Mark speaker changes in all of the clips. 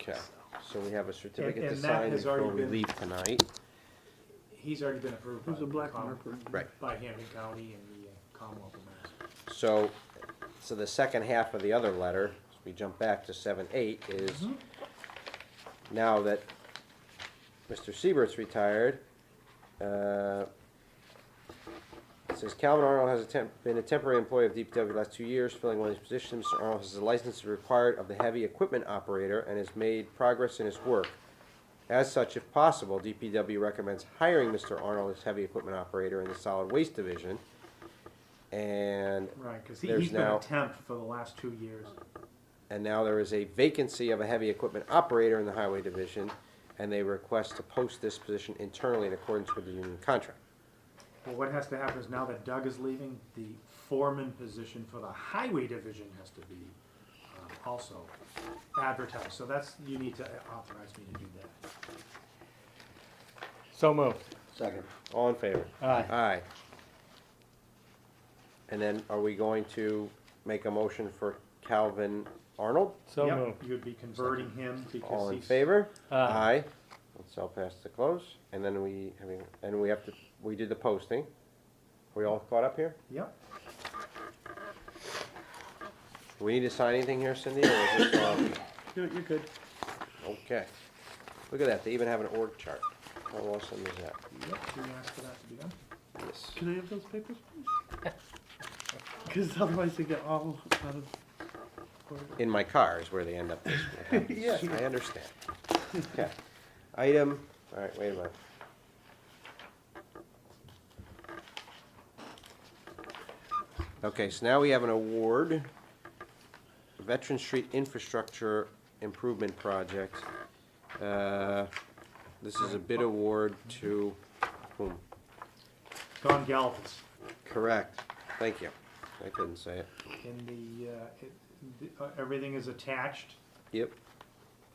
Speaker 1: Okay, so we have a
Speaker 2: And-
Speaker 1: certificate to
Speaker 2: and that
Speaker 1: sign
Speaker 2: has
Speaker 1: before
Speaker 2: already
Speaker 1: we
Speaker 2: been-
Speaker 1: leave tonight.
Speaker 2: He's already been approved by,
Speaker 3: There's a black
Speaker 2: Com-
Speaker 3: marker.
Speaker 1: Right.
Speaker 2: by Hampton County and the uh, Commonwealth of Mass.
Speaker 1: So, so the second half of the other letter, as we jump back to seven, eight, is now that Mr. Siebert's retired, uh, it says Calvin Arnold has a temp- been a temporary employee of DPW the last two years, filling one of his positions. Mr. Arnold has a license required of the heavy equipment operator and has made progress in his work. As such, if possible, DPW recommends hiring Mr. Arnold as heavy equipment operator in the solid waste division. And
Speaker 2: Right, because he,
Speaker 1: There's
Speaker 2: he's been
Speaker 1: now-
Speaker 2: a temp for the last two years.
Speaker 1: and now there is a vacancy of a heavy equipment operator in the highway division, and they request to post this position internally in accordance with the union contract.
Speaker 2: Well, what has to happen is now that Doug is leaving, the foreman position for the highway division has to be um, also advertised. So that's, you need to authorize me to do that.
Speaker 4: So moved.
Speaker 1: Second. All in favor?
Speaker 4: Aye.
Speaker 1: Aye. And then are we going to make a motion for Calvin Arnold?
Speaker 4: So
Speaker 2: Yep,
Speaker 4: moved.
Speaker 2: You'd be converting him because he's.
Speaker 1: All in favor?
Speaker 4: Aye.
Speaker 1: Aye. Let's all pass the close, and then we, I mean, and we have to, we did the posting. We all caught up here?
Speaker 2: Yep.
Speaker 1: Do we need to sign anything here, Cindy, or is this, um,
Speaker 3: You're, you're good.
Speaker 1: Okay. Look at that, they even have an org chart. How awesome is that?
Speaker 2: Yep, you asked for that to be done.
Speaker 1: Yes.
Speaker 3: Can I have those papers, please? Because otherwise they get all out of order.
Speaker 1: In my car is where they end up this way.
Speaker 3: Yeah.
Speaker 1: I understand. Okay. Item, all right, wait a minute. Okay, so now we have an award. Veteran Street Infrastructure Improvement Project. Uh, This is a bid award to whom?
Speaker 2: Don Galvis.
Speaker 1: Correct. Thank you. I couldn't say it.
Speaker 2: In the, uh, it, the, uh, everything is attached.
Speaker 1: Yep.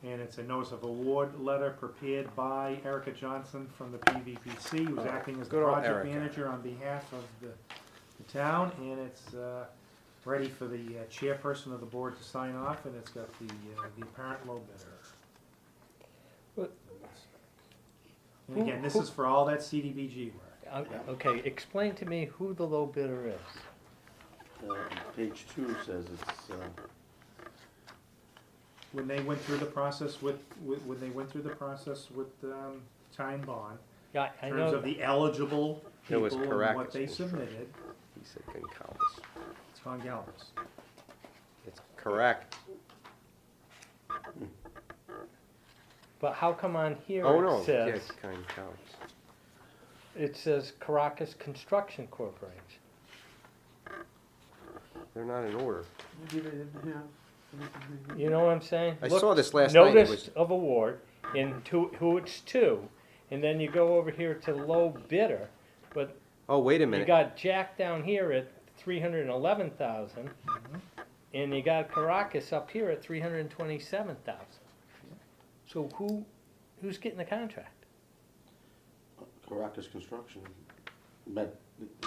Speaker 2: And it's a notice of award letter prepared by Erica Johnson from the PVPC, who's acting as the
Speaker 1: Good old
Speaker 2: project
Speaker 1: Erica.
Speaker 2: manager on behalf of the, the town, and it's, uh, ready for the uh, chairperson of the board to sign off, and it's got the, uh, the apparent low bidder.
Speaker 4: But-
Speaker 2: And again, this is for all that CDBG work.
Speaker 4: Uh, Okay, explain to me who the low bidder is.
Speaker 5: Uh, Page two says it's, uh,
Speaker 2: when they went through the process with, with when they went through the process with um, Time Bond
Speaker 4: Yeah, I
Speaker 2: in terms
Speaker 4: know,
Speaker 2: of the eligible
Speaker 1: It
Speaker 2: people
Speaker 1: was
Speaker 2: and what
Speaker 1: Caracas
Speaker 2: they
Speaker 1: construction.
Speaker 2: submitted.
Speaker 1: He said Goncalves.
Speaker 2: It's Con Galvis.
Speaker 1: It's correct.
Speaker 4: but how come on here
Speaker 1: Oh, no,
Speaker 4: it says,
Speaker 1: yes, Goncalves.
Speaker 4: it says Caracas Construction Corporation?
Speaker 1: They're not in order.
Speaker 3: Maybe they didn't have anything they
Speaker 4: You know what I'm saying?
Speaker 1: I
Speaker 4: Look,
Speaker 1: saw this last night, it
Speaker 4: Notice
Speaker 1: was,
Speaker 4: of award and to, who it's to, and then you go over here to low bidder, but
Speaker 1: oh, wait a
Speaker 4: you
Speaker 1: minute.
Speaker 4: got Jack down here at three hundred and eleven thousand, and you got Caracas up here at three hundred and twenty-seven thousand. So who, who's getting the contract?
Speaker 5: Caracas Construction met,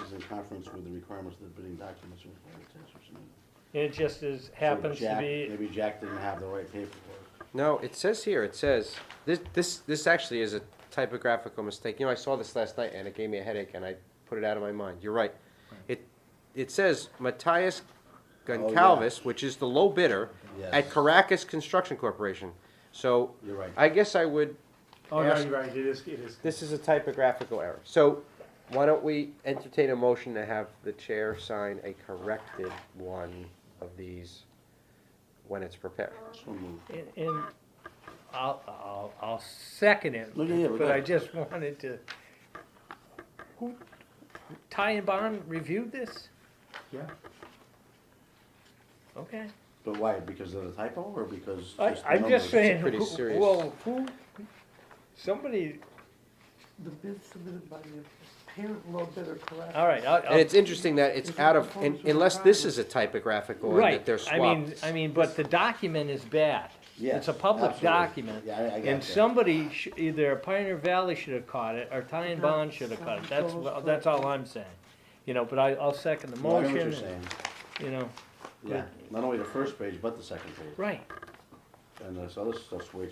Speaker 5: is in conference with the requirements of the bidding documents and required tests or something.
Speaker 4: And It just is, happens
Speaker 5: So
Speaker 4: to
Speaker 5: Jack-
Speaker 4: be,
Speaker 5: Maybe Jack didn't have the right paperwork.
Speaker 1: No, it says here, it says, this, this, this actually is a typographical mistake. You know, I saw this last night and it gave me a headache and I put it out of my mind. You're right. It, it says Matthias Goncalves, which is the low bidder, at
Speaker 5: Yes.
Speaker 1: Caracas Construction Corporation. So
Speaker 5: You're right.
Speaker 1: I guess I would
Speaker 2: Oh no,
Speaker 1: Ask-
Speaker 2: you're right. It is. It is.
Speaker 1: This is a typographical error. So why don't we entertain a motion to have the chair sign a corrected one of these when it's prepared?
Speaker 5: So moved.
Speaker 4: and, and I'll, I'll, I'll second it,
Speaker 5: Look at here, we're
Speaker 4: but I
Speaker 5: good.
Speaker 4: just wanted to. Who, Ty and Bond reviewed this?
Speaker 2: Yeah.
Speaker 4: Okay.
Speaker 5: But why, because of the typo or because?
Speaker 4: I,
Speaker 5: the
Speaker 4: I'm just
Speaker 5: numbers?
Speaker 4: saying,
Speaker 1: pretty
Speaker 4: who-
Speaker 1: serious.
Speaker 4: well, who, somebody,
Speaker 3: The bid submitted by the parent low bidder collapsed.
Speaker 4: all right, I'll-
Speaker 1: And
Speaker 4: I'll-
Speaker 1: it's interesting that it's out of, un- unless this is a typographical and that
Speaker 4: right,
Speaker 1: they're
Speaker 4: I mean,
Speaker 1: swapped.
Speaker 4: I mean, but the document is bad. It's a
Speaker 5: Yes,
Speaker 4: public
Speaker 5: absolutely.
Speaker 4: document.
Speaker 5: Yeah, I, I got
Speaker 4: And
Speaker 5: that.
Speaker 4: somebody, sh- either Pioneer Valley should have caught it, or Ty and Bond should have caught it, that's, wha- that's all I'm saying. You know, but I, I'll second the
Speaker 5: No, I know
Speaker 4: motion,
Speaker 5: what you're
Speaker 4: and,
Speaker 5: saying.
Speaker 4: you know,
Speaker 5: Yeah, not only the first page, but the second page.
Speaker 4: right.
Speaker 5: And this other stuff's way too